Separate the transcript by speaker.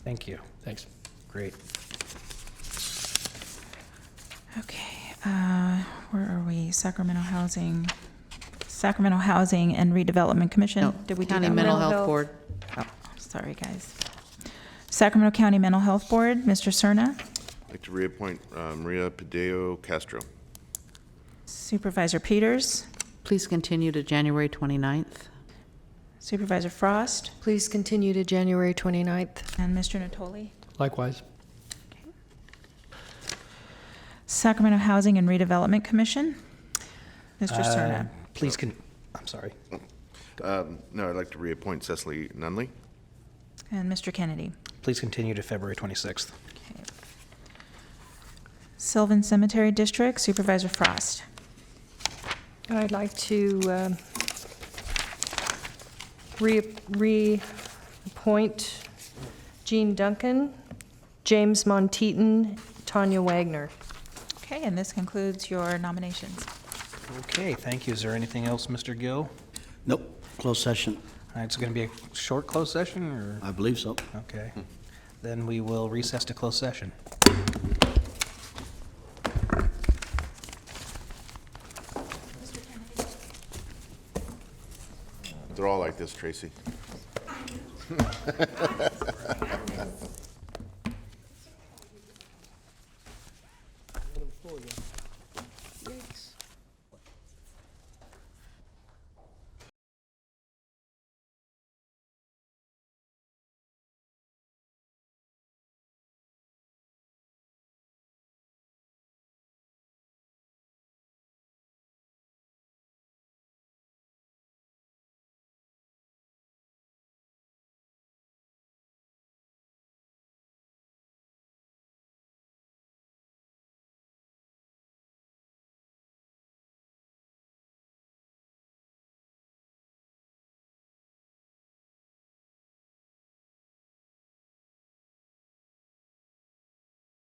Speaker 1: Thank you.
Speaker 2: Thanks.
Speaker 1: Great.
Speaker 3: Okay, uh, where are we? Sacramento Housing, Sacramento Housing and Redevelopment Commission?
Speaker 4: No,
Speaker 3: Did we do
Speaker 4: County
Speaker 3: that?
Speaker 4: Mental Health Board.
Speaker 3: Oh, sorry, guys. Sacramento County Mental Health Board, Mr. Cerna.
Speaker 5: I'd like to reappoint uh, Maria Padeo Castro.
Speaker 3: Supervisor Peters,
Speaker 4: Please continue to January 29th.
Speaker 3: Supervisor Frost,
Speaker 6: Please continue to January 29th.
Speaker 3: and Mr. Natoli.
Speaker 2: Likewise.
Speaker 3: Sacramento Housing and Redevelopment Commission, Mr.
Speaker 1: Uh,
Speaker 3: Cerna.
Speaker 1: Please can, I'm sorry.
Speaker 5: Um, No, I'd like to reappoint Cecily Nunley.
Speaker 3: And Mr. Kennedy.
Speaker 1: Please continue to February 26th.
Speaker 3: Okay. Sylvan Cemetery District Supervisor Frost.
Speaker 6: I'd like to um, re- reappoint Jean Duncan, James Monteaton, Tanya Wagner.
Speaker 3: Okay, and this concludes your nominations.
Speaker 1: Okay, thank you. Is there anything else, Mr. Gill?
Speaker 7: Nope, closed session.
Speaker 1: All right, It's going to be a short closed session, or?
Speaker 7: I believe so.
Speaker 1: Okay. Then we will recess to closed session.
Speaker 5: They're all like this, Tracy.